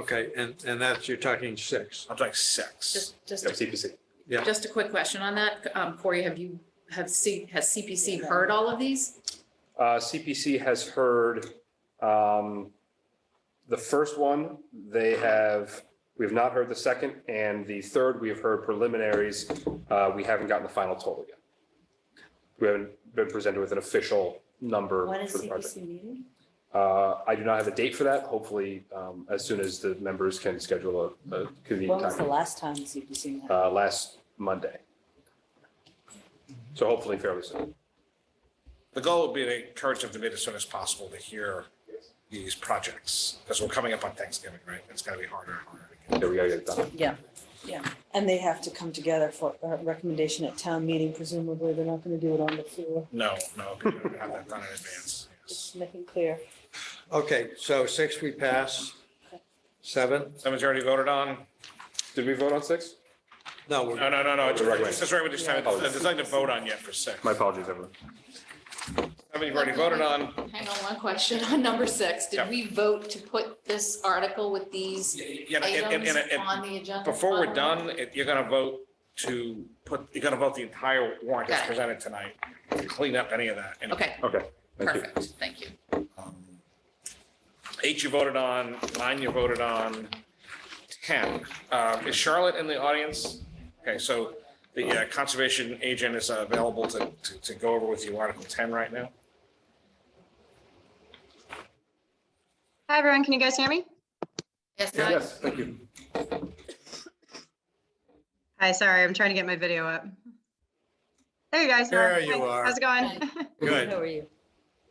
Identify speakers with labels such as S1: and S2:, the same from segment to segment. S1: Okay, and, and that's, you're talking six.
S2: I'm talking six.
S3: Just, just,
S4: Of CPC.
S1: Yeah.
S3: just a quick question on that. Um, Corey, have you, have C, has CPC heard all of these?
S4: Uh, CPC has heard, um, the first one, they have, we have not heard the second, and the third, we have heard preliminaries. Uh, we haven't gotten the final total yet. We haven't been presented with an official number
S5: When is
S4: for the project.
S5: CPC meeting?
S4: Uh, I do not have a date for that. Hopefully, um, as soon as the members can schedule a, a
S5: When
S4: convenient
S5: was the
S4: time,
S5: last time CPC met?
S4: uh, last Monday. So hopefully fairly soon.
S2: The goal would be to encourage them to meet as soon as possible to hear these projects, because we're coming up on Thanksgiving, right? It's gotta be harder and harder to get.
S4: There we go, get it done.
S5: Yeah, yeah. And they have to come together for a recommendation at town meeting. Presumably, th're not going to do it on the floor.
S2: No, no, we have to have that done in advance. yes.
S5: Just making clear.
S1: Okay, so six we pass. Seven?
S2: Someone's already voted on?
S4: Did we vote on six?
S1: No, we're,
S2: No, no, no, no. It's
S4: Recommend.
S2: it's just right with this time.
S4: Oh.
S2: There's nothing to vote on yet for six.
S4: My apologies, everyone.
S2: Seven you've already voted on.
S3: Hang on, one question on number six.
S2: Yeah.
S3: Did we vote to put this article with these
S2: Yeah, and- and-
S3: items
S2: and- and-
S3: on the agenda?
S2: Before we're
S3: finally?
S2: done, if you're gonna vote to put, you're gonna vote the entire warrant as
S3: Got it.
S2: presented tonight. Clean up any of that. And,
S3: Okay,
S4: Okay. thank you.
S3: perfect. Thank you.
S2: um, Eight you voted on, nine you voted on, ten. Um, Is Charlotte in the audience? Okay, so the uh, conservation agent is uh, available to, to- to go over with you Article ten right now.
S6: Hi, everyone. Can you guys hear me?
S3: Yes, I-
S4: Yes, thank you.
S6: Hi, sorry. I'm trying to get my video up. There you guys
S1: There
S6: are.
S1: you
S6: Hi,
S1: are.
S6: How's it going?
S1: good.
S5: How are you?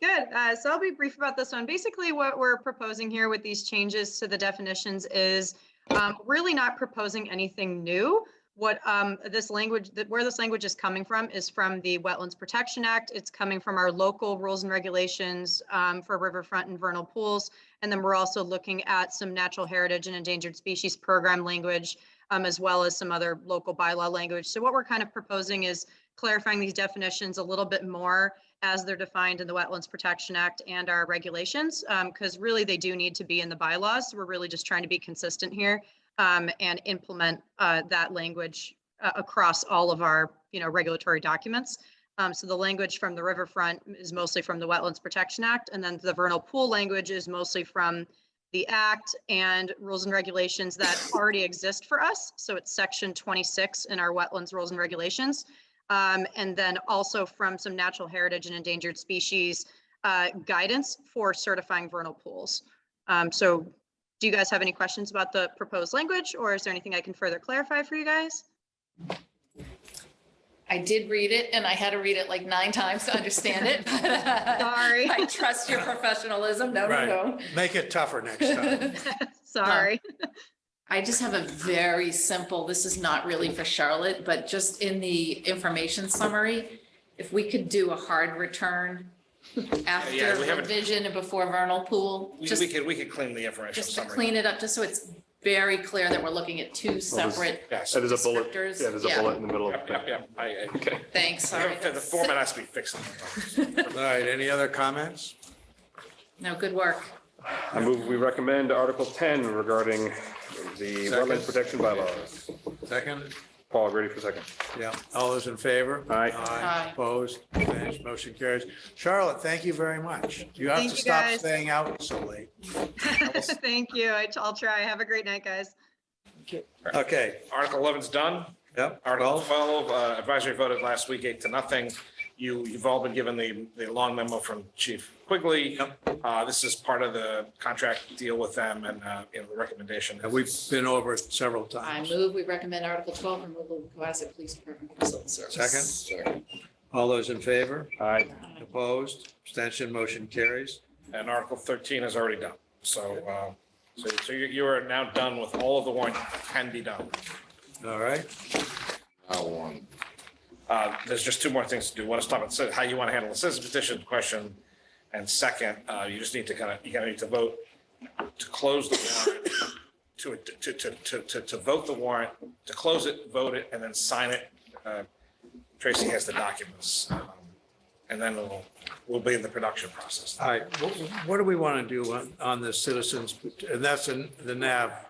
S6: Good. Uh, So I'll be brief about this one. Basically, what we're proposing here with these changes to the definitions is um, really not proposing anything new. What um, this language, that where this language is coming from is from the Wetlands Protection Act. It's coming from our local rules and regulations um, for riverfront and vernal pools. And then we're also looking at some natural heritage and endangered species program language, um, as well as some other local bylaw language. So what we're kind of proposing is clarifying these definitions a little bit more as they're defined in the Wetlands Protection Act and our regulations, because really they do need to be in the bylaws. We're really just trying to be consistent here um, and implement uh, that language uh, across all of our, you know, regulatory documents. Um, So the language from the riverfront is mostly from the Wetlands Protection Act, and then the vernal pool language is mostly from the act and rules and regulations that already exist for us. So it's section 26 in our Wetlands Rules and Regulations. Um, and then also from some natural heritage and endangered species uh, guidance for certifying vernal pools. Um, so do you guys have any questions about the proposed language or is there anything I can further clarify for you guys?
S3: I did read it and I had to read it like nine times to understand it.
S6: Sorry.
S3: I trust your professionalism. No,
S1: Right.
S3: no,
S1: Make it tougher next time.
S3: no.
S6: Sorry.
S3: I just have a very simple, this is not really for Charlotte, but just in the information summary, if we could do a hard return after
S2: we haven't-
S3: revision and before vernal pool,
S2: We
S3: just,
S2: we could, we could clean the information
S3: just to
S2: summary.
S3: clean it up, just so it's very clear that we're looking at two separate,
S2: Yes.
S4: And there's a bullet, yeah,
S3: Descriptors,
S4: there's a
S3: yeah.
S4: bullet in the middle.
S2: Yep, yep, yep. I- I-
S4: Okay.
S3: thanks, sorry.
S2: The the format has to be fixed.
S1: All right, any other comments?
S3: No, good work.
S4: I move, we recommend Article 10 regarding the
S1: Second.
S4: wetlands protection bylaws.
S1: Second?
S4: Paul, ready for a second?
S1: Yeah, all those in favor?
S4: Aye.
S3: Aye.
S1: Opposed, abstained, motion carries. Charlotte, thank you very much. You have
S6: Thank
S1: to
S6: you,
S1: stop
S6: guys.
S1: staying out so late.
S6: Thank you. I- I'll try. Have a great night, guys.
S1: Okay,
S2: Article 11's done.
S1: yep.
S2: Article
S1: Well,
S2: 12, uh, advisory voted last week, eight to nothing. You, you've all been given the, the long memo from Chief Quigley. Uh, This is part of the contract deal with them and, uh, you know, the recommendation.
S1: and We've been over it several
S3: I
S1: times.
S3: move, we recommend Article twelve, removal of Cohasset Police Department Consultant Service. Second.
S1: All those in favor?
S4: Aye.
S1: Opposed, abstention, motion carries.
S2: And Article 13 is already done. So, uh, so so you you are now done with all of the warrant that can be done.
S1: All right,
S2: Uh, There's just two more things to do. One is stop and sit, how you want to handle the citizen petition question. And second, uh, you just need to kind of, you're going to need to vote to close the warrant, to, to, to, to, to, to vote the warrant, to close it, vote it, and then sign it. Uh, Tracy has the documents. Um, and then we'll, we'll be in the production process.
S1: All right, what, what do we want to do on, on the citizens, and that's in the NAV